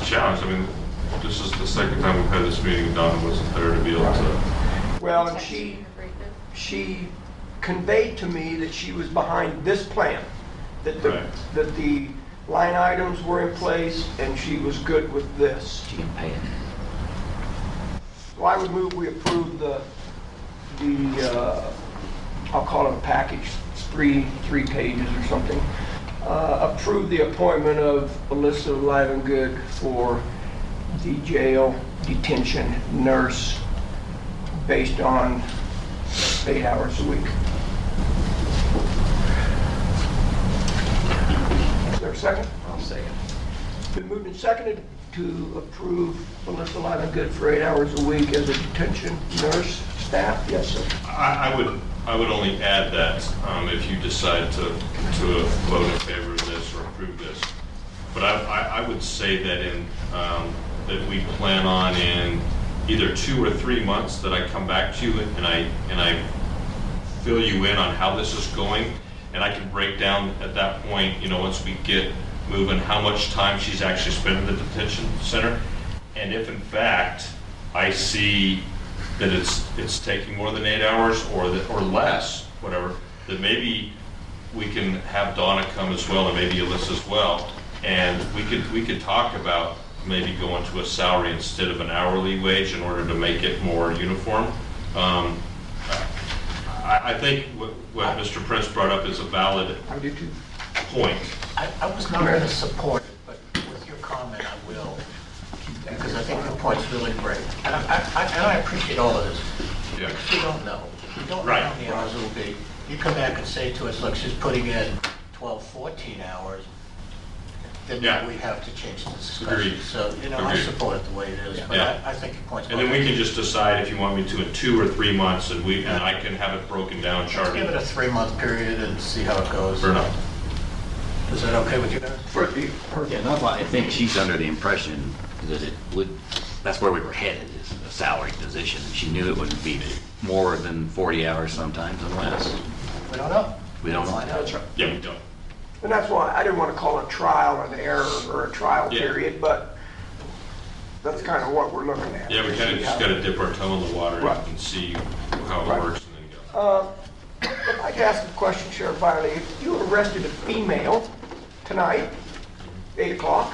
challenge, I mean, this is the second time we've had this meeting, Donna wasn't there to be able to, Well, and she, she conveyed to me that she was behind this plan, that the, Right. that the line items were in place and she was good with this. She can pay it. So I would move we approve the, the, uh, I'll call it a package, three, three pages or something. Uh, Approve the appointment of Alyssa Livengood for the jail detention nurse based on eight hours a week. Is there a second? I'll say it. Been moved and seconded to approve Melissa Livengood for eight hours a week as a detention nurse staff. Yes, sir. I, I would, I would only add that, um, if you decide to, to vote in favor of this or approve this. But I, I, I would say that in, um, that we plan on in either two or three months that I come back to you and I, and I fill you in on how this is going, and I can break down at that point, you know, once we get moving, how much time she's actually spent in the detention center. And if in fact, I see that it's, it's taking more than eight hours or, that- or less, whatever, then maybe we can have Donna come as well, and maybe Alyssa as well, and we could, we could talk about maybe going to a salary instead of an hourly wage in order to make it more uniform. Um, I, I think what, what Mr. Prince brought up is a valid I do too. point. I, I was not going to support it, but with your comment, I will, because I think your point's really great. And I, I- and I appreciate all of this. Yeah. We don't know. We don't know Right. how many hours it will be. You come back and say to us, look, she's putting in 12, 14 hours, Yeah. then we have to change the discussion. Agreed. So, you know, I Agreed. support it the way it is, but Yeah. I, I think your point's. And then we can just decide if you want me to in two or three months, and we, and I can have it broken down, Let's give it charted. a three-month period and see how it goes. Fair enough. Is that okay with you guys? For the, per- Yeah, that's why I think she's under the impression that it would, that's where we were headed, is a salary position. She knew it wouldn't be more than 40 hours sometimes unless, We don't know. we don't know. Find out. Yeah, we don't. and that's why, I didn't want to call it trial an error or a trial Yeah. period, but that's kind of what we're looking at. Yeah, we kind of just got to dip our toe in the water Right. and see how Right. Uh, it works and then go. I'd like to ask a question, Sheriff Viley. If you arrested a female tonight, 8 o'clock,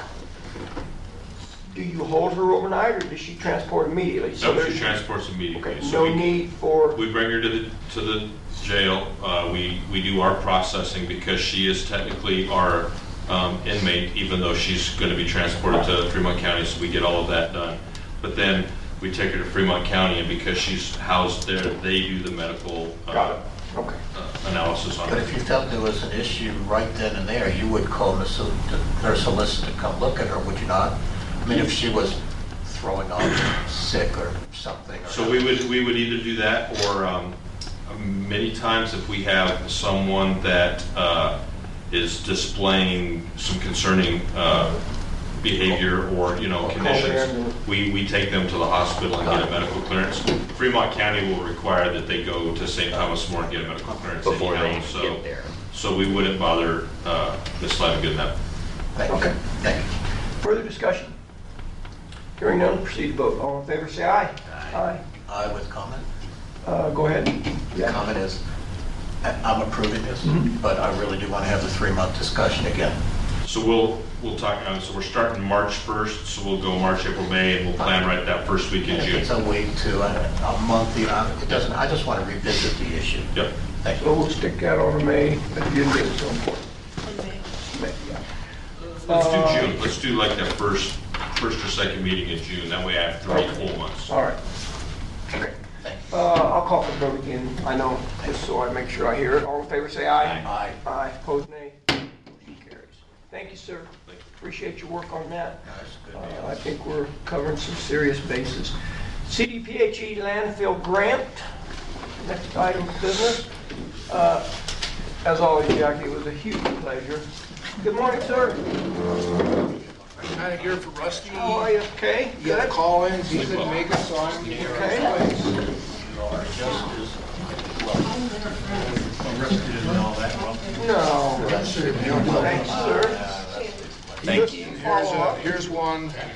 do you hold her overnight or does she transport immediately? So No, she there's- transports immediately. Okay, So no we- need for, We bring her to the, to the jail, uh, we, we do our processing because she is technically our um, inmate, even though she's gonna be transported to Fremont County, so we get all of that done. But then we take her to Fremont County, and because she's housed there, they do the medical uh, got it, okay. uh, analysis on But if her. you felt there was an issue right then and there, you would call the sol- the nurse solicitor to come look at her, would you not? I mean, if she was throwing up, sick or something. or- So we would, we would either do that, or um, many times if we have someone that uh, is displaying some concerning uh, behavior or, you know, conditions, we, we take them to the hospital and get a medical clearance. Fremont County will require that they go to St. Thomas More and get a medical clearance Before they anyhow, so- get there. So we wouldn't bother uh, Ms. Livengood in that. Thank you, Okay. thank you. Further discussion? Hearing none, proceed to vote. All in favor, say aye. Aye. I with comment. Uh, Go ahead. The comment is, I- I'm approving this, but I really do want to have the three-month discussion again. So we'll, we'll talk, uh, so we're starting March 1st, so we'll go March, April, May, and we'll plan right that first week in And if June. it's a week to uh, a a month, you know, it doesn't, I just want to revisit the issue. Yep. Thank So you. we'll stick that on to May, but you didn't get it so important. May, yeah. Let's do June, let's do like that first, first or second meeting in June, that way I have three full months. All right. Okay. Uh, I'll call for vote again, I know, just so I make sure I hear it. All in favor, say aye. Aye. Aye, opposed, nay. Motion carries. Thank you, sir. Appreciate your work on that. That's a good Uh, deal. I think we're covering some serious bases. CDPHE E landfill grant, next item of business. Uh, As always, Jackie, it was a huge pleasure. Good morning, sir. Kind of here for Rusty. How are you? Okay? You had Good? a call in, he couldn't make it, so I'm here. Okay. You are just as, well, arrested and all that, well, No. Thank you, sir. uh, Thank you. Here's, a- here's one.